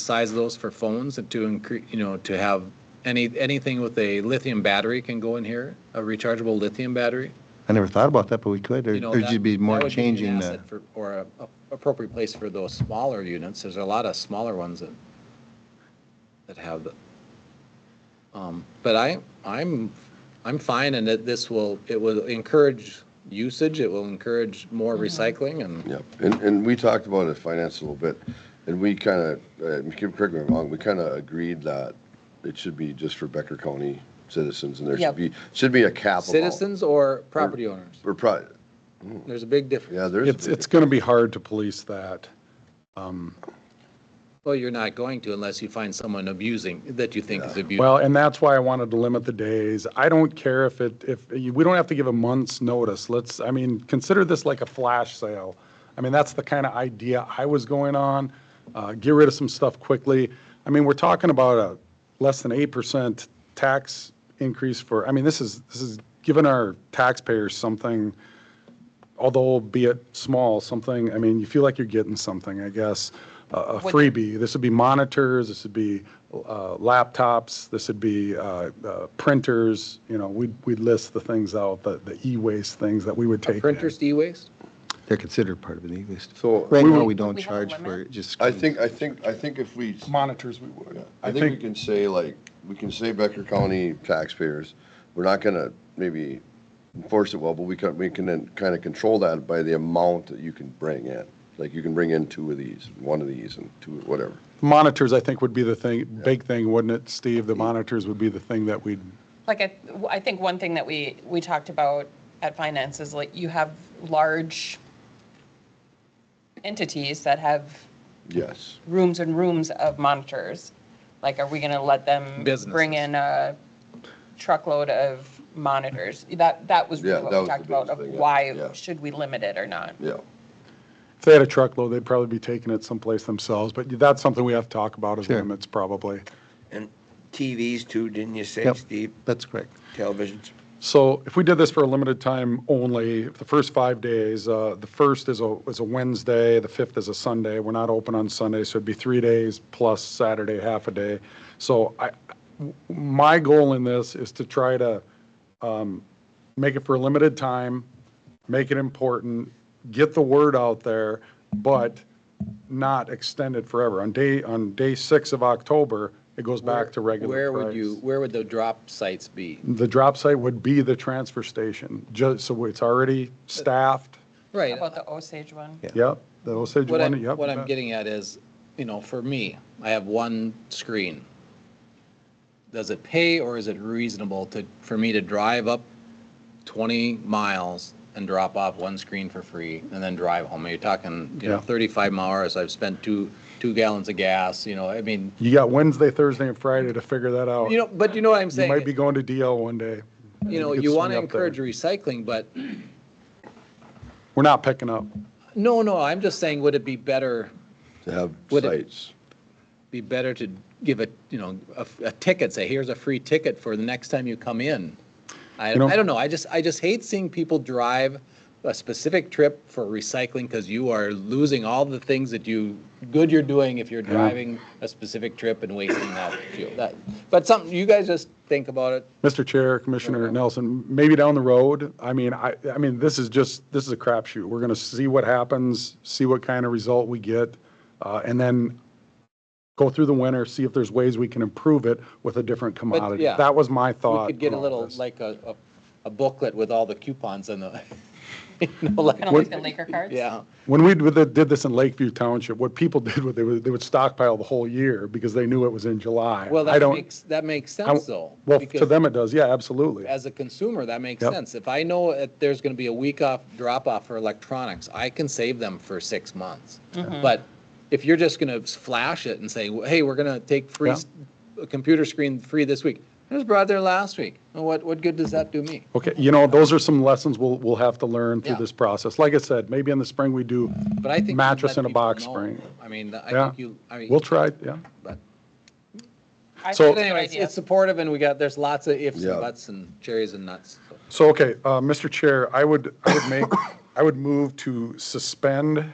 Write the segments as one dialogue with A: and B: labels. A: size of those for phones and to increase, you know, to have any, anything with a lithium battery can go in here, a rechargeable lithium battery.
B: I never thought about that, but we could.
A: You
B: There-
A: know,
B: There'd
A: that-
B: just be
A: that
B: more
A: would an
B: changing the,
A: asset for- Or a a appropriate place for those smaller units. There's a lot of smaller ones that, that have the. um, But I, I'm, I'm fine and that this will, it will encourage usage, it will encourage more recycling and
C: Yep, and, and we talked about it finance a little bit, and we kind of, correct me if I'm wrong, we kind of agreed that it should be just for Becker County citizens, and there
D: Yep.
C: should be, should be a cap. amount.
A: citizens or property owners.
C: We're probably,
A: There's a big difference.
C: yeah, there's.
E: It's, it's going to be hard to police that.
A: Well, you're not going to unless you find someone abusing, that you think is abusing.
E: Well, and that's why I wanted to limit the days. I don't care if it, if, we don't have to give a month's notice. Let's, I mean, consider this like a flash sale. I mean, that's the kind of idea I was going on. Uh, Get rid of some stuff quickly. I mean, we're talking about a less than 8% tax increase for, I mean, this is, this is giving our taxpayers something, although be it small, something, I mean, you feel like you're getting something, I guess, a- a
D: What-
E: freebie. This would be monitors, this would be uh, laptops, this would be uh, uh, printers, you know, we'd, we'd list the things out, the, the e-waste things that we would take. in.
A: Printers e-waste?
B: they're considered part of an e-waste.
C: So-
B: Right now, we
D: But
B: don't
D: we have a
B: charge for
D: limit?
B: it, just.
C: I think, I think, I think if we,
E: Monitors we would.
C: I think we can say like, we can say Becker County taxpayers, we're not gonna maybe enforce it well, but we can, we can then kind of control that by the amount that you can bring in. Like you can bring in two of these, one of these and two, whatever.
E: Monitors, I think, would be the thing, big thing, wouldn't it, Steve? The monitors would be the thing that we'd,
D: Like, I, I think one thing that we, we talked about at finance is like, you have large entities that have
C: Yes.
D: rooms and rooms of monitors. Like, are we gonna let them bring
A: Businesses.
D: in a truckload of monitors? That, that was
C: Yeah,
D: really
C: that
D: what we
C: was the
D: talked about,
C: biggest
D: of
C: thing, yeah,
D: why
C: yeah.
D: should we limit it or not?
C: Yeah,
E: if they had a truckload, they'd probably be taking it someplace themselves, but that's something we have to talk about as
B: Sure.
E: limits, probably.
F: And TVs too, didn't you say,
B: Yep.
F: Steve?
B: That's correct.
F: Televisions?
E: So if we did this for a limited time only, the first five days, uh, the first is a, is a Wednesday, the fifth is a Sunday. We're not open on Sunday, so it'd be three days plus Saturday, half a day. So I, my goal in this is to try to um, make it for a limited time, make it important, get the word out there, but not extend it forever. On day, on day six of October, it goes back to regular
A: Where would
E: price.
A: you, where would the drop sites be?
E: The drop site would be the transfer station, just, so it's already staffed.
D: How
A: Right. uh,
D: About the Osage one?
B: Yeah.
E: Yep, the Osage
A: What
E: one,
A: I'm,
E: yep.
A: what I'm getting at is, you know, for me, I have one screen. Does it pay or is it reasonable to, for me to drive up 20 miles and drop off one screen for free and then drive home? You're talking, you know,
E: Yeah.
A: 35 miles, I've spent two, two gallons of gas, you know, I mean,
E: You got Wednesday, Thursday, and Friday to figure that out.
A: you know, but you know what I'm
E: You
A: saying?
E: might be going to DL one day.
A: You know,
E: could
A: you want to
E: swing up there.
A: encourage recycling, but
E: We're not picking up.
A: no, no, I'm just saying, would it be better?
C: to have
A: Would it-
C: sites.
A: be better to give a, you know, a, a ticket, say, here's a free ticket for the next time you come in. I,
E: You know-
A: I don't know, I just, I just hate seeing people drive a specific trip for recycling because you are losing all the things that you, good you're doing if you're driving a specific trip and wasting that fuel. That- But something, you guys just think about it,
E: Mr. Chair, Commissioner Nelson, maybe down the road, I mean, I, I mean, this is just, this is a crapshoot. We're going to see what happens, see what kind of result we get, uh, and then go through the winter, see if there's ways we can improve it with a different commodity.
A: yeah.
E: That was my
A: we
E: thought.
A: could get
E: on
A: a
E: all
A: little,
E: this.
A: like a, a- a booklet with all the coupons and the, you know, like,
D: Kind of like the Laker cards?
A: yeah.
E: When we did did this in Lakeview Township, what people did, was they would, they would stockpile the whole year because they knew it was in July.
A: Well,
E: I
A: that
E: don't-
A: makes, that makes
E: I-
A: sense though.
E: Well, to
A: because-
E: them it does, yeah, absolutely.
A: as a consumer, that makes
E: Yep.
A: sense. If I know that there's going to be a week off, drop off for electronics, I can save them for six months.
D: Mm-hmm.
A: But if you're just going to flash it and say, hey, we're going to take free,
E: Yeah.
A: s- a computer screen free this week, it was brought there last week. Well, What, what good does that do me?
E: Okay, you know, those are some lessons we'll, we'll have to learn through
A: Yeah.
E: this process. Like I said, maybe in the spring we do,
A: But I think. you let
E: Mattress in a
A: people
E: box
A: know.
E: spring.
A: I mean, I
E: Yeah.
A: think you, I mean.
E: we'll try, yeah.
A: But but
D: I think
E: So-
D: it's a good
A: anyways,
D: idea.
A: it's supportive and we got, there's lots of ifs
C: Yeah.
A: and buts and cherries and nuts. so.
E: So, okay, uh, Mr. Chair, I would, I would make, I would move to suspend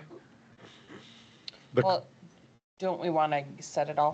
E: the
D: Well, don't we want to set it all